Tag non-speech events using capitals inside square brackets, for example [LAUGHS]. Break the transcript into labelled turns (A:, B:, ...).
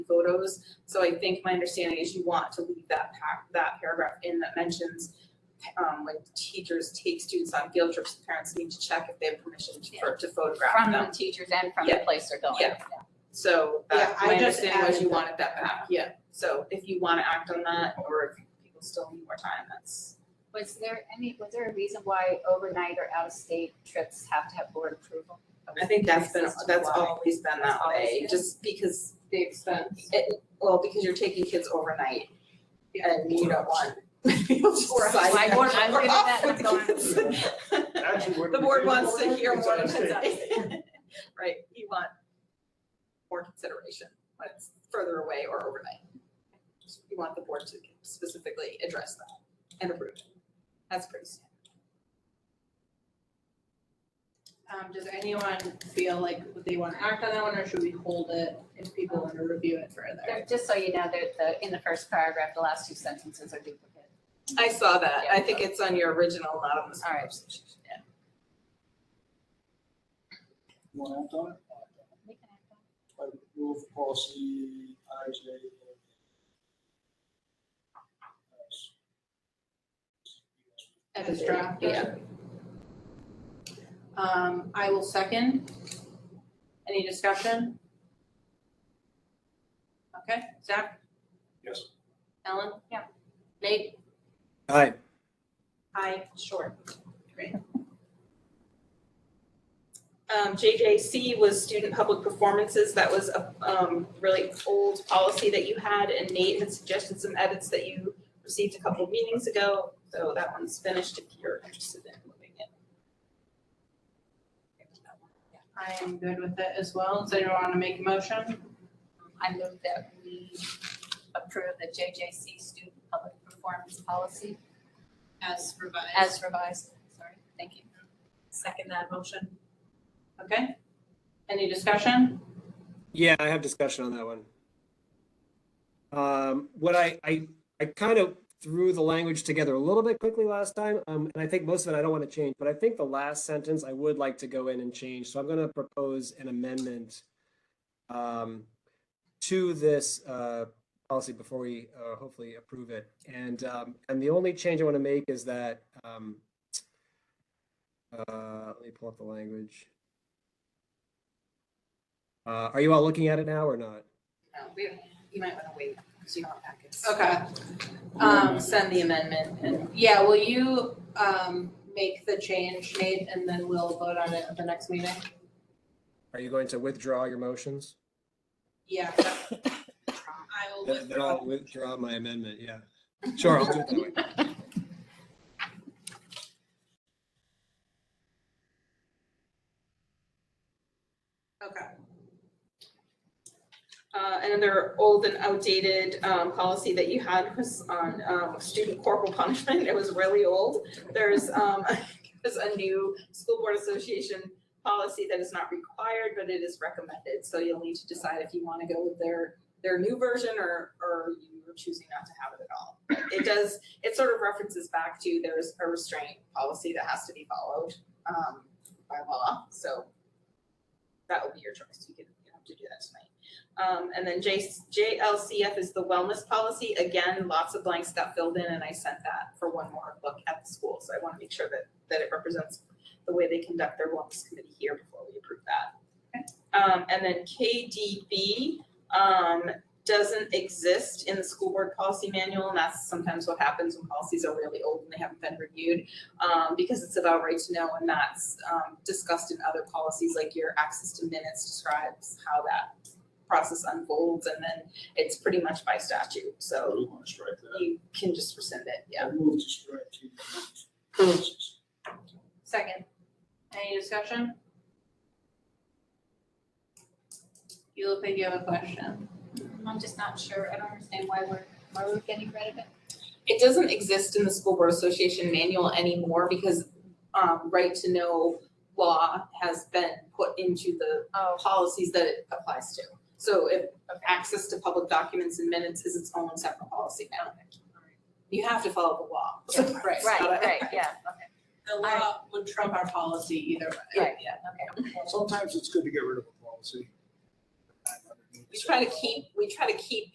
A: photos. So I think my understanding is you want to leave that pa- that paragraph in that mentions um when teachers take students on field trips, parents need to check if they have permission to for- to photograph
B: From the
A: them.
B: teachers and from the
A: Yeah.
B: place they're going.
A: Yeah. So that,
C: Yeah, I
A: my
C: just
A: understanding was
C: added
A: you
C: that.
A: wanted that back, yeah. So if you wanna act on that or if people still need more time, that's.
B: Was there any, was there a reason why overnight or out-of-state trips have to have board approval?
A: I think that's been,
B: That's
A: that's
B: why.
A: always been that
B: That's always
A: way,
B: been.
A: just because
C: the expense.
A: it, well, because you're taking kids overnight and you don't want [LAUGHS] people to
B: Or-
A: decide
B: I-
A: we're
B: I'm good at
A: off
B: that,
A: with
B: I'm going.
A: the kids. [LAUGHS]
D: Actually, what
A: The
D: we
A: board
D: did-
A: wants to hear
D: It's
A: more
D: out of state.
A: [LAUGHS] consideration. Right, you want more consideration when it's further away or overnight. So You want the board to specifically address that and approve it. That's pretty standard.
C: Um, does anyone feel like they want to act on that one, or should we hold it if people want to review it further?
B: There- Just so you know, that the, in the first paragraph, the last two sentences are duplicate.
A: I saw that. I think it's on your original, not on this.
B: All right.
A: conversation.
E: You want to act on it? I would move policy IJ.
C: At this draft?
A: Yeah.
C: Um, I will second. Any discussion? Okay, Zach,
D: Yes.
C: Ellen?
B: Yeah.
C: Nate?
F: Aye.
C: Hi, short. Great.
A: Um, JJC was student public performances. That was a, um, really old policy that you had and Nate had suggested some edits that you received a couple of meetings ago. So that one's finished if you're interested in moving it.
C: I am good with it as well. Does anyone want to make a motion?
B: I move that we approve the JJC student public performance policy
C: As revised.
B: as revised. Sorry, thank you.
C: Second that motion. Okay. Any discussion?
F: Yeah, I have discussion on that one. Um, what I, I, I kind of threw the language together a little bit quickly last time, um, and I think most of it I don't want to change, but I think the last sentence I would like to go in and change, so I'm gonna propose an amendment um, to this, uh, policy before we, uh, hopefully approve it. And, um, and the only change I want to make is that, um, uh, let me pull up the language. Uh, are you all looking at it now or not?
B: Uh,
A: No, we, you might wanna wait, because you don't have packets.
C: Okay. Um,
A: Send the amendment and.
C: yeah, will you, um, make the change, Nate, and then we'll vote on it at the next meeting?
F: Are you going to withdraw your motions?
C: Yeah. I will
F: Then then
C: withdraw.
F: I'll withdraw my amendment, yeah. Sure, I'll do it that way.
C: Okay.
A: Uh, and another old and outdated, um, policy that you had was on, um, student corporal [LAUGHS] punishment. It was really old. There's, um, [LAUGHS] there's a new school board association policy that is not required, but it is recommended. So you'll need to decide if you want to go with their, their new version or, or you're choosing not to have it at all. It does, it sort of references back to there's a restraint policy that has to be followed, um, by law. So that will be your choice. You can, you don't have to do that tonight. Um, and then J, JLCF is the wellness policy. Again, lots of blanks got filled in and I sent that for one more look at the school. So I want to make sure that, that it represents the way they conduct their wellness committee here before we approve that. Um, and then KDB, um, doesn't exist in the school board policy manual. And that's sometimes what happens when policies are really old and they haven't been reviewed. Um, because it's about right to know and that's, um, discussed in other policies, like your access to minutes describes how that process unfolds and then it's pretty much by statute, so
D: We want to strike that.
A: you can just rescind it, yeah.
E: I move to strike TDE.
C: Second. Any discussion? You look like you have a question.
B: I'm just not sure. I don't understand why we're, why we're getting rid of it.
A: It doesn't exist in the school board association manual anymore because um right to know law has been put into the
B: Oh,
A: policies that it applies to. So if access to public documents and minutes is its own separate policy now. You have to follow the law. So
C: Right.
B: right,
A: [LAUGHS]
B: right, yeah, okay.
C: The law would trump our policy either way.
B: Right.
C: Yeah.
E: Sometimes it's good to get rid of a policy.
A: we try to keep, we try to keep